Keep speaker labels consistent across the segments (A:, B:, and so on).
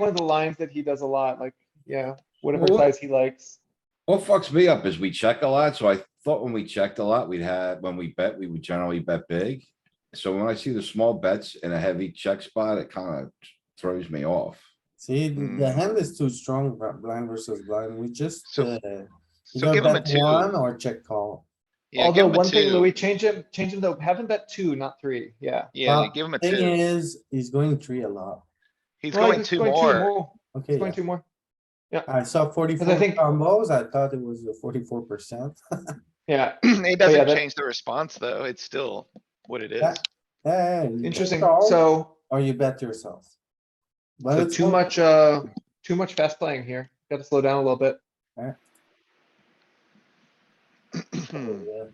A: one of the lines that he does a lot, like, yeah, whatever
B: Well, what-
A: size he likes.
B: What fucks me up is we check a lot, so I thought when we checked a lot, we'd had, when we bet, we would generally bet big. So when I see the small bets in a heavy check spot, it kind of throws me off.
C: See, the- the
D: Hmm.
C: hand is too strong, but blind versus blind, we just,
D: So-
C: uh,
D: So
C: either
D: give him a
C: bet one
D: two.
C: or check call.
D: Yeah, give
A: Although
D: him a
A: one thing,
D: two.
A: Louis, change him, change him though, have him bet two, not three, yeah.
D: Yeah,
C: Uh,
D: give him a
C: Thing
D: two.
C: is, he's going three a lot.
D: He's
A: Well,
D: going
A: he's
D: two more.
A: He's
C: Okay,
A: going
C: yeah.
A: two more,
C: I saw forty-four
A: think-
C: combos, I thought it was forty-four percent.
A: yeah.
D: It
A: Oh, yeah,
D: doesn't
A: that-
D: change the response, though. It's still what it
C: Yeah.
D: is.
C: Yeah, you bet
A: Interesting,
C: all
A: so,
C: Or you bet yourself. But
A: so
C: it's
A: too
C: not-
A: much, uh, too much fast playing here. Gotta slow down a little bit. Hmm.
C: Yeah.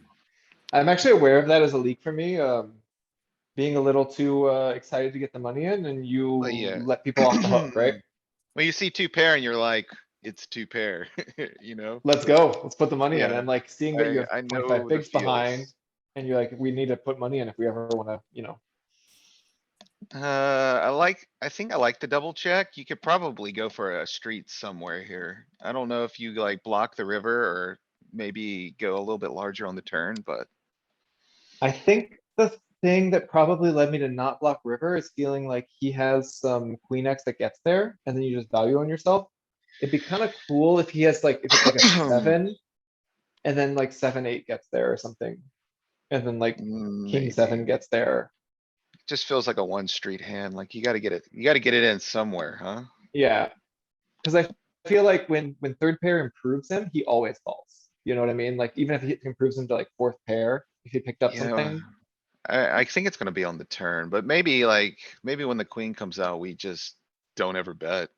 A: I'm actually aware of that as a leak for me, um. Being a little too, uh, excited to get the money in and you
D: Well, yeah.
A: let people off the hook, right?
D: When you see two pair and you're like, it's two pair, you know?
A: Let's go, let's put the money in
D: Yeah.
A: and like seeing that you
D: I- I
A: have
D: know the
A: twenty-five bigs behind.
D: feels.
A: And you're like, we need to put money in if we ever wanna, you know,
D: Uh, I like, I think I like the double check. You could probably go for a street somewhere here. I don't know if you like block the river or maybe go a little bit larger on the turn, but
A: I think the thing that probably led me to not block river is feeling like he has some queen X that gets there and then you just value on yourself. It'd be kind of cool if he has like, if it's like a seven. And then like seven, eight gets there or something. And then like
D: mm,
A: king seven gets there.
D: just feels like a one street hand. Like you gotta get it, you gotta get it in somewhere, huh?
A: Yeah. Cause I feel like when, when third pair improves him, he always falls. You know what I mean? Like even if he improves him to like fourth pair, if he picked up
D: Yeah.
A: something.
D: I, I think it's gonna be on the turn, but maybe like, maybe when the queen comes out, we just don't ever bet.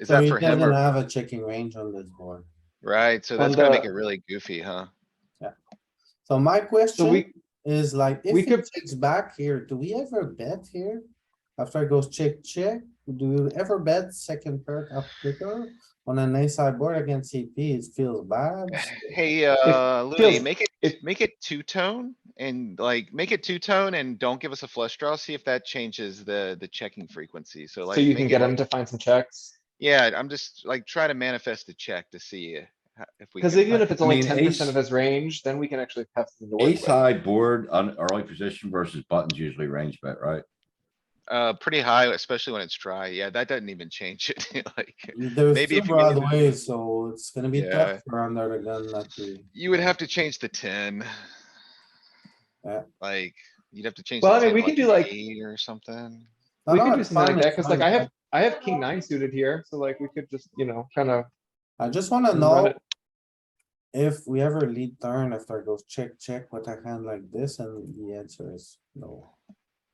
D: Is
C: So
D: that
C: he
D: for him
C: doesn't
D: or,
C: have a checking range on this board.
D: right? So
A: On
D: that's gonna make
A: the-
D: it really goofy, huh?
C: So my
A: So we,
C: question is like, if
A: we
C: he
A: could-
C: checks back here, do we ever bet here? After it goes check, check, do you ever bet second pair of clicker on an ace high board against CP? It feels bad.
D: Hey, uh, Louis,
A: feels-
D: make it,
A: it-
D: make it two tone and like, make it two tone and don't give us a flush draw. See if that changes the, the checking frequency. So like.
A: so you
D: make
A: can
D: it
A: get
D: like-
A: him to find some checks.
D: Yeah, I'm just like try to manifest a check to see uh, if we.
A: Cause
D: can-
A: even if it's
B: I
A: only
B: mean,
A: ten percent
B: ace-
A: of his range, then we can actually have some. to work
B: Ace
A: with.
B: high board on early position versus buttons usually range bet, right?
D: Uh, pretty high, especially when it's dry. Yeah, that doesn't even change it. Like,
C: There's
D: Maybe
C: two
D: if you get-
C: broadways, so it's gonna be
D: Yeah.
C: tough for under the gun not to.
D: you would have to change the ten.
C: Yeah.
D: Like, you'd have to change.
A: Uh, Well,
D: the
A: I mean,
D: 10,
A: we could
D: like,
A: do,
D: an
A: like-
D: Eight or something.
C: No,
A: We
C: no,
A: could do
C: it's
A: something
C: fine,
A: like that,
C: it's
A: cause like
C: fine.
A: I have, I have king nine suited here, so like we could just, you know, kinda.
C: I just wanna
A: run
C: know
A: it.
C: if we ever lead turn after it goes check, check with a hand like this, and the answer is no.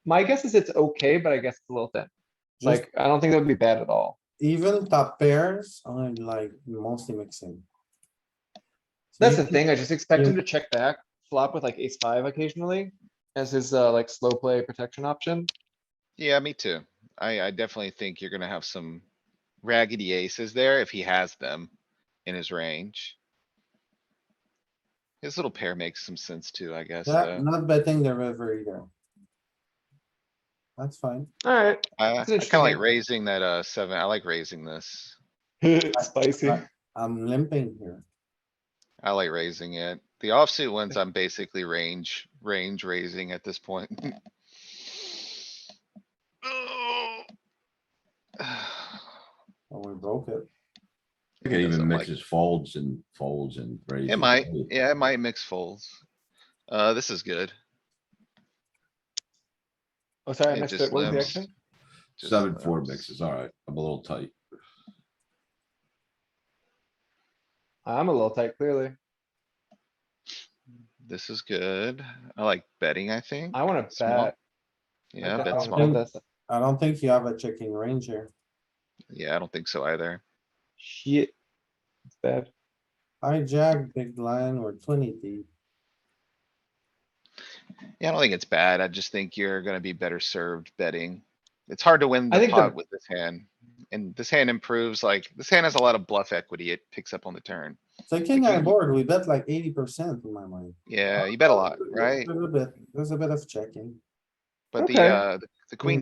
A: My guess is it's okay, but I guess it's a little thin.
C: Just
A: Like, I don't think that would be bad at all.
C: Even top pairs are like mostly mixing. So
A: That's
C: you
A: the thing, I just expect him
C: Yeah.
A: to check back, flop with like ace five occasionally as his, uh, like slow play protection option.
D: Yeah, me too. I, I definitely think you're gonna have some raggedy aces there if he has them in his range. His little pair makes some sense too, I guess.
C: can- Yeah,
D: though.
C: not betting the river either. That's fine.
A: Alright.
D: I, I
A: It's
D: kinda like
A: interesting.
D: raising that, uh, seven. I like raising this.
A: Spicy.
C: I- I'm limping here.
D: I like raising it. The offsuit ones, I'm basically range, range raising at this point.
A: Mm.
D: Oh.
C: Oh, we broke it.
B: It could
D: doesn't
B: even
D: like-
B: mixes folds and folds and raises.
D: It might, yeah, it might mix folds. Uh, this is good.
A: Oh, sorry, I
D: It
A: missed
D: just
A: it. What was the
D: limbs.
A: action?
D: Just
B: Seven, four
D: limbs.
B: mixes, alright, I'm a little tight.
A: I'm a little tight, clearly.
D: This is good. I like betting, I think.
A: I wanna
D: Small.
A: bet. I
D: Yeah,
A: don't
D: bet
A: wanna
D: small.
C: small.
A: this.
C: I don't think you have a checking range here.
D: Yeah, I don't think so either.
A: Shit. It's bad.
C: Hijack, big blind, or twenty deep.
D: Yeah, I don't think it's bad. I just think you're gonna be better served betting. It's hard to win
A: I
D: the
A: think the-
D: pot with this hand. And this hand improves, like, this hand has a lot of bluff equity. It picks up on the turn.
C: Second
D: Like
C: high
D: you-
C: board, we bet like eighty percent in my mind.
A: Uh,
D: Yeah, you bet a lot, right?
C: There's a bit, there's a bit of checking.
D: But the,
A: Okay.
D: uh, the- the queen